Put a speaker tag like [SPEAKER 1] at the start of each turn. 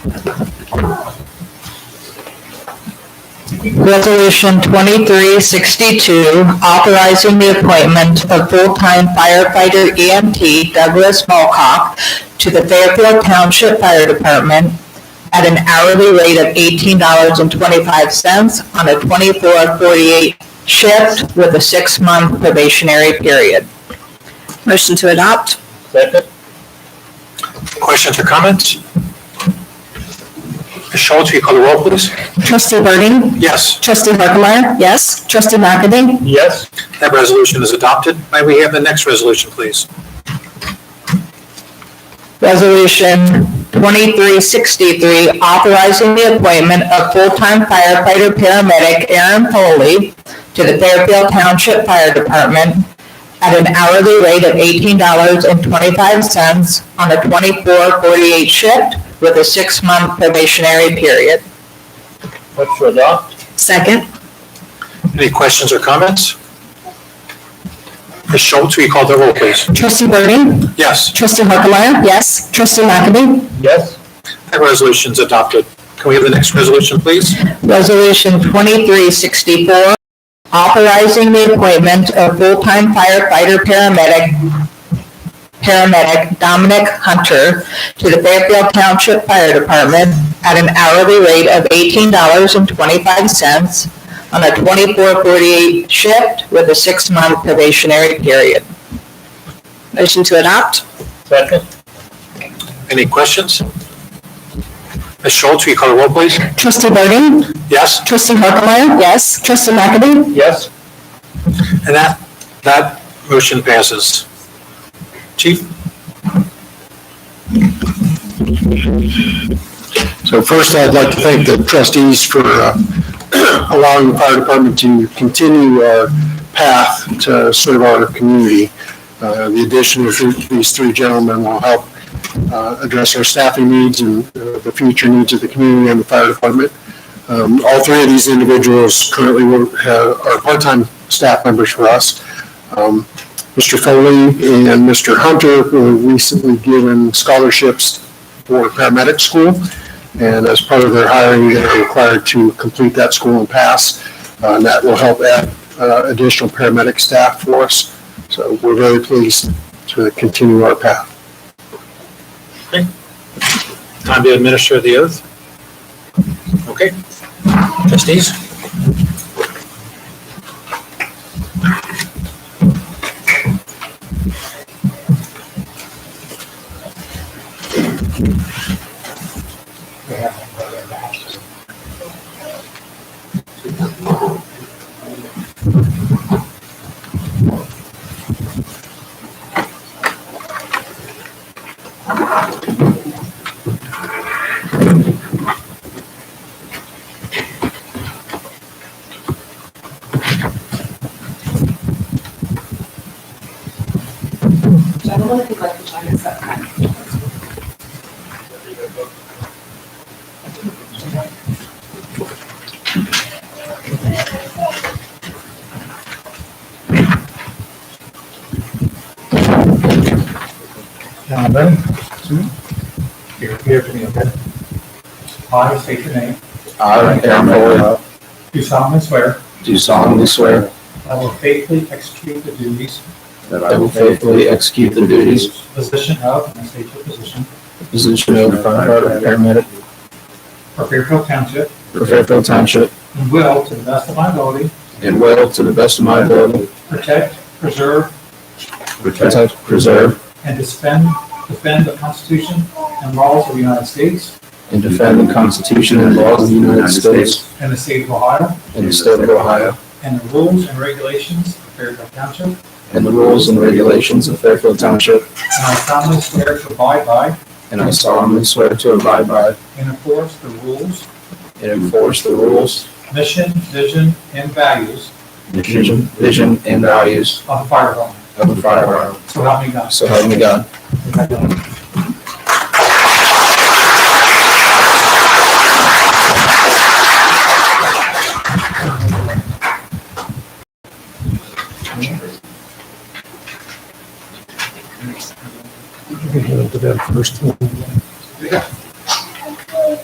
[SPEAKER 1] Resolution 2362, authorizing the appointment of full-time firefighter EMT Douglas Malcock to the Fairfield Township Fire Department at an hourly rate of $18.25 on a 24/48 shift with a six-month probationary period.
[SPEAKER 2] Motion to adopt?
[SPEAKER 3] Second.
[SPEAKER 4] Questions or comments? Ms. Schultz, will you call the roll, please?
[SPEAKER 5] Trustee Burden?
[SPEAKER 4] Yes,
[SPEAKER 5] Trustee Harkemaier?
[SPEAKER 2] Yes.
[SPEAKER 5] Trustee McAdie?
[SPEAKER 3] Yes.
[SPEAKER 4] that resolution is adopted. May we have the next resolution, please?
[SPEAKER 1] Resolution 2363, authorizing the appointment of full-time firefighter paramedic Aaron Foley to the Fairfield Township Fire Department at an hourly rate of $18.25 on a 24/48 shift with a six-month probationary period.
[SPEAKER 3] Motion to adopt?
[SPEAKER 2] Second?
[SPEAKER 4] Any questions or comments? Ms. Schultz, will you call the roll, please?
[SPEAKER 5] Trustee Burden?
[SPEAKER 4] Yes,
[SPEAKER 5] Trustee Harkemaier?
[SPEAKER 2] Yes.
[SPEAKER 5] Trustee McAdie?
[SPEAKER 3] Yes.
[SPEAKER 4] that resolution is adopted. Can we have the next resolution, please?
[SPEAKER 1] Resolution 2364, authorizing the appointment of full-time firefighter paramedic, paramedic Dominic Hunter to the Fairfield Township Fire Department at an hourly rate of $18.25 on a 24/48 shift with a six-month probationary period.
[SPEAKER 2] Motion to adopt?
[SPEAKER 3] Second.
[SPEAKER 4] Any questions? Ms. Schultz, will you call the roll, please?
[SPEAKER 5] Trustee Burden?
[SPEAKER 4] Yes,
[SPEAKER 5] Trustee Harkemaier?
[SPEAKER 2] Yes.
[SPEAKER 5] Trustee McAdie?
[SPEAKER 3] Yes.
[SPEAKER 4] and that, that motion passes. Chief?
[SPEAKER 6] So first, I'd like to thank the trustees for uh, allowing the fire department to continue our path to serve our community. Uh, The addition of th- these three gentlemen will help uh, address our staffing needs and uh, the future needs of the community and the fire department. Um, All three of these individuals currently work- ha- are part-time staff members for us. Um, Mr. Foley and Mr. Hunter were recently given scholarships for paramedic school. And as part of their hiring, they're required to complete that school and pass. Uh, And that will help add uh, additional paramedic staff for us. So we're very pleased to continue our path.
[SPEAKER 4] Time to administer the oath. Okay. Trustees?
[SPEAKER 7] Now then, two, you appear to me, okay? I state your name,
[SPEAKER 6] I, Aaron Foley,
[SPEAKER 7] do solemnly swear
[SPEAKER 6] do solemnly swear
[SPEAKER 7] I will faithfully execute the duties,
[SPEAKER 6] that I will faithfully execute the duties
[SPEAKER 7] position of, and state your position,
[SPEAKER 6] of position of firefighter paramedic
[SPEAKER 7] for Fairfield Township,
[SPEAKER 6] for Fairfield Township
[SPEAKER 7] and will, to the best of my ability,
[SPEAKER 6] and will, to the best of my ability,
[SPEAKER 7] protect, preserve,
[SPEAKER 6] protect, preserve,
[SPEAKER 7] and defend, defend the Constitution and laws of the United States
[SPEAKER 6] and defend the Constitution and laws of the United States
[SPEAKER 7] and the state of Ohio,
[SPEAKER 6] and the state of Ohio,
[SPEAKER 7] and the rules and regulations of Fairfield Township, and
[SPEAKER 6] and the rules and regulations of Fairfield Township
[SPEAKER 7] I solemnly swear to abide by
[SPEAKER 6] And I solemnly swear to abide by
[SPEAKER 7] and enforce the rules,
[SPEAKER 6] and enforce the rules,
[SPEAKER 7] mission, vision, and values
[SPEAKER 6] vision, vision, and values
[SPEAKER 7] of the fire department.
[SPEAKER 6] of the fire department.
[SPEAKER 7] So help me God.
[SPEAKER 6] So help me God.
[SPEAKER 7] You can hand it to them first. and